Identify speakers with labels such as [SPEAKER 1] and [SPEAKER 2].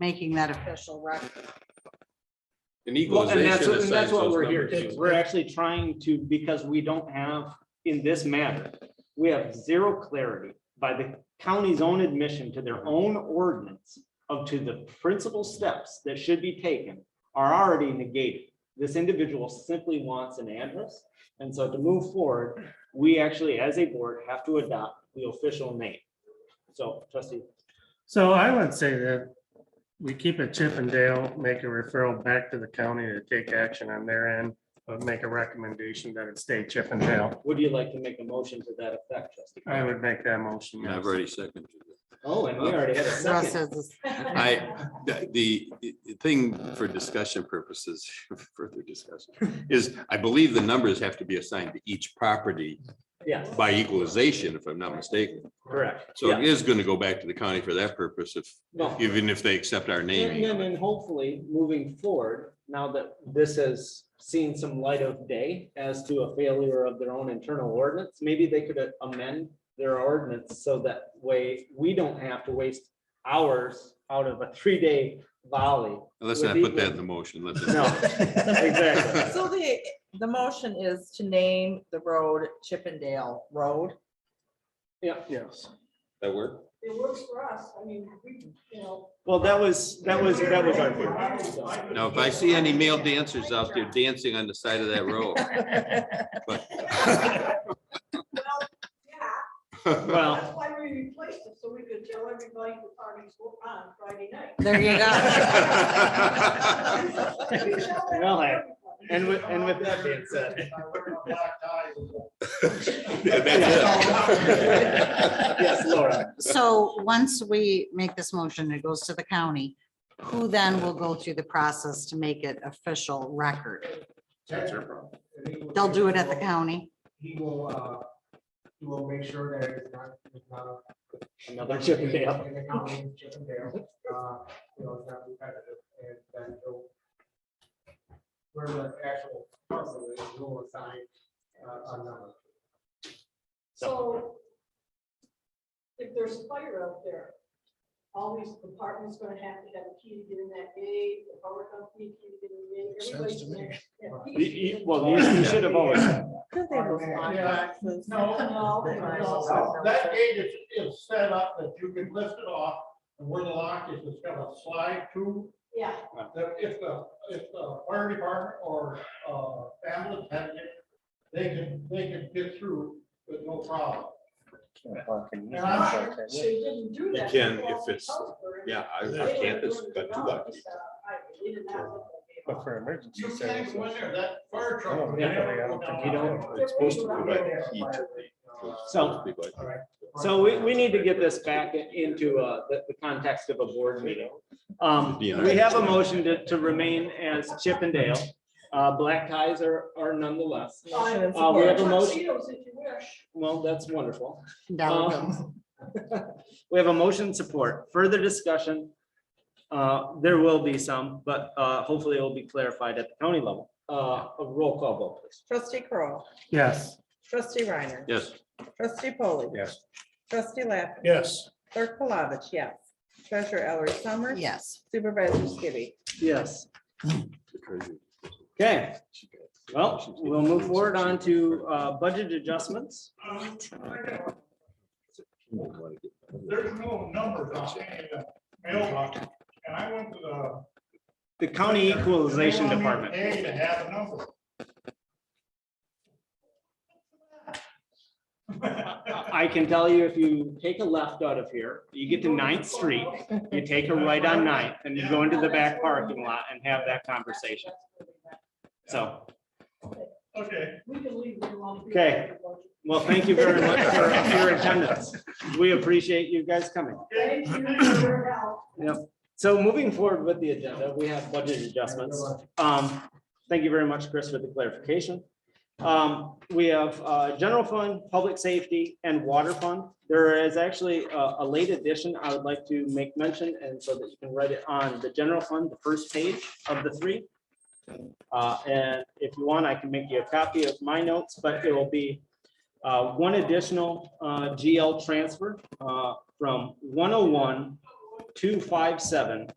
[SPEAKER 1] making that official record.
[SPEAKER 2] An
[SPEAKER 3] Well, And that's,
[SPEAKER 2] equalization
[SPEAKER 3] and that's
[SPEAKER 2] assigns
[SPEAKER 3] what
[SPEAKER 2] those
[SPEAKER 3] we're here,
[SPEAKER 2] numbers.
[SPEAKER 3] to. we're actually trying to, because we don't have, in this matter, we have zero clarity by the county's own admission to their own ordinance of to the principal steps that should be taken are already negated. This individual simply wants an address, and so to move forward, we actually, as a board, have to adopt the official name. So trustee,
[SPEAKER 4] So I would say that we keep it Chip and Dale, make a referral back to the county to take action on their end, but make a recommendation that it stay Chip and Dale.
[SPEAKER 3] would you like to make a motion to that effect, trustee?
[SPEAKER 4] I would make that motion.
[SPEAKER 2] And
[SPEAKER 4] yes.
[SPEAKER 2] I've already seconded.
[SPEAKER 3] Oh, and we already had a
[SPEAKER 1] So
[SPEAKER 3] second.
[SPEAKER 1] says this-
[SPEAKER 2] I, the- the, the thing for discussion purposes, further discussion, is I believe the numbers have to be assigned to each property
[SPEAKER 3] Yes,
[SPEAKER 2] by equalization, if I'm not mistaken.
[SPEAKER 3] correct.
[SPEAKER 2] So
[SPEAKER 3] Yeah.
[SPEAKER 2] it is going to go back to the county for that purpose if,
[SPEAKER 3] No.
[SPEAKER 2] even if they accept our
[SPEAKER 3] And then,
[SPEAKER 2] naming.
[SPEAKER 3] and hopefully, moving forward, now that this has seen some light of day as to a failure of their own internal ordinance, maybe they could uh, amend their ordinance so that way we don't have to waste hours out of a three-day volley.
[SPEAKER 2] Let's not put that in the motion. Let's.
[SPEAKER 3] No, exactly.
[SPEAKER 5] So the, the motion is to name the road Chippendale Road.
[SPEAKER 3] Yeah,
[SPEAKER 4] Yes.
[SPEAKER 2] That work?
[SPEAKER 6] It works for us, I mean, we, you know.
[SPEAKER 3] well, that was, that was, that was our. point.
[SPEAKER 2] Now, if I see any male dancers out there dancing on the side of that road. but-
[SPEAKER 6] Yeah,
[SPEAKER 3] Well,
[SPEAKER 6] that's why we replaced it, so we could tell everybody the party's on Friday night.
[SPEAKER 1] There you go.
[SPEAKER 6] We tell that
[SPEAKER 3] Well, hey,
[SPEAKER 6] everybody.
[SPEAKER 3] and with, and with that being said,
[SPEAKER 2] Yeah, that's it.
[SPEAKER 3] yes, Laura,
[SPEAKER 1] So once we make this motion, it goes to the county, who then will go through the process to make it official record?
[SPEAKER 7] That's her problem.
[SPEAKER 1] They'll do it at the county.
[SPEAKER 7] He will, uh, he will make sure that it's not, it's not.
[SPEAKER 3] another Chippendale.
[SPEAKER 7] In the county, Chippendale, uh, you know, it's not repetitive, and then he'll. Where the actual parcel is, he'll assign, uh, a number.
[SPEAKER 6] So if there's a fire out there, all these departments gonna have to have a key to get in that gate, the power company key to get in the gate. everybody's
[SPEAKER 7] Sounds to me.
[SPEAKER 6] gonna-
[SPEAKER 3] You- you- Well, you you should have always.
[SPEAKER 5] Could they move on?
[SPEAKER 7] Yeah,
[SPEAKER 6] No, no.
[SPEAKER 7] That gate is, is set up that you can lift it off, and where the lock is, it's got a slide to
[SPEAKER 6] Yeah,
[SPEAKER 7] that if the, if the fire department or, uh, ambulance had it, they can, they can get through with no problem.
[SPEAKER 6] so you didn't do that.
[SPEAKER 2] can
[SPEAKER 6] before
[SPEAKER 2] if it's-
[SPEAKER 6] October.
[SPEAKER 2] Yeah,
[SPEAKER 6] They
[SPEAKER 2] our
[SPEAKER 6] were
[SPEAKER 2] campus
[SPEAKER 6] doing it
[SPEAKER 2] got two
[SPEAKER 6] wrong,
[SPEAKER 2] by
[SPEAKER 6] just, uh, I- they did not look like they-
[SPEAKER 4] for emergency
[SPEAKER 7] You can't go in there, that fire truck.
[SPEAKER 4] No,
[SPEAKER 7] would
[SPEAKER 3] Oh, yeah,
[SPEAKER 7] never
[SPEAKER 4] I
[SPEAKER 7] go
[SPEAKER 4] don't think
[SPEAKER 7] down.
[SPEAKER 3] you don't-
[SPEAKER 6] it's supposed to go by the
[SPEAKER 2] key to
[SPEAKER 3] So- So we, we need to get this back into uh, the, the context of a board meeting. Um, we have a motion to, to remain as Chip and Dale. Uh, black ties are, are nonetheless.
[SPEAKER 5] Motion and
[SPEAKER 3] Uh, we have a
[SPEAKER 5] support.
[SPEAKER 3] motion.
[SPEAKER 6] Tuxedos if you wish.
[SPEAKER 3] Well, that's wonderful. Uh, Um,
[SPEAKER 1] Down it goes.
[SPEAKER 3] We have a motion support, further discussion. Uh, there will be some, but uh, hopefully it will be clarified at the county level. Uh, a roll call vote, please.
[SPEAKER 5] Trustee Kroll,
[SPEAKER 4] Yes.
[SPEAKER 5] trustee Reiner,
[SPEAKER 2] Yes.
[SPEAKER 5] trustee Polly.
[SPEAKER 4] Yes.
[SPEAKER 5] Trustee Lappin,
[SPEAKER 7] Yes.
[SPEAKER 5] clerk Palovich, yes. Treasurer Ellery Summers.
[SPEAKER 1] Yes.
[SPEAKER 5] Supervisor Skibby.
[SPEAKER 3] Yes. Okay, well, we'll move forward on to uh, budget adjustments.
[SPEAKER 7] Uh,
[SPEAKER 3] uh,
[SPEAKER 7] There's no numbers on any of the mailbox, and I went to the.
[SPEAKER 3] The county equalization
[SPEAKER 7] They want me
[SPEAKER 3] department.
[SPEAKER 7] to pay to have a number.
[SPEAKER 3] I can tell you, if you take a left out of here, you get to Ninth Street, you take a right on Ninth, and you go into the back parking lot and have that conversation. So,
[SPEAKER 7] Okay.
[SPEAKER 6] We can leave it alone.
[SPEAKER 3] Okay. well, thank you very much for your attendance. We appreciate you guys coming.
[SPEAKER 6] Thank you for your help.
[SPEAKER 3] So moving forward with the agenda, we have budget adjustments. Um, thank you very much, Chris, for the clarification. Um, we have, uh, general fund, public safety and water fund. There is actually a, a late addition I would like to make mention and so that you can write it on the general fund, the first page of the three. Uh, and if you want, I can make you a copy of my notes, but it will be, uh, one additional, uh, GL transfer, uh, from one oh one two five seven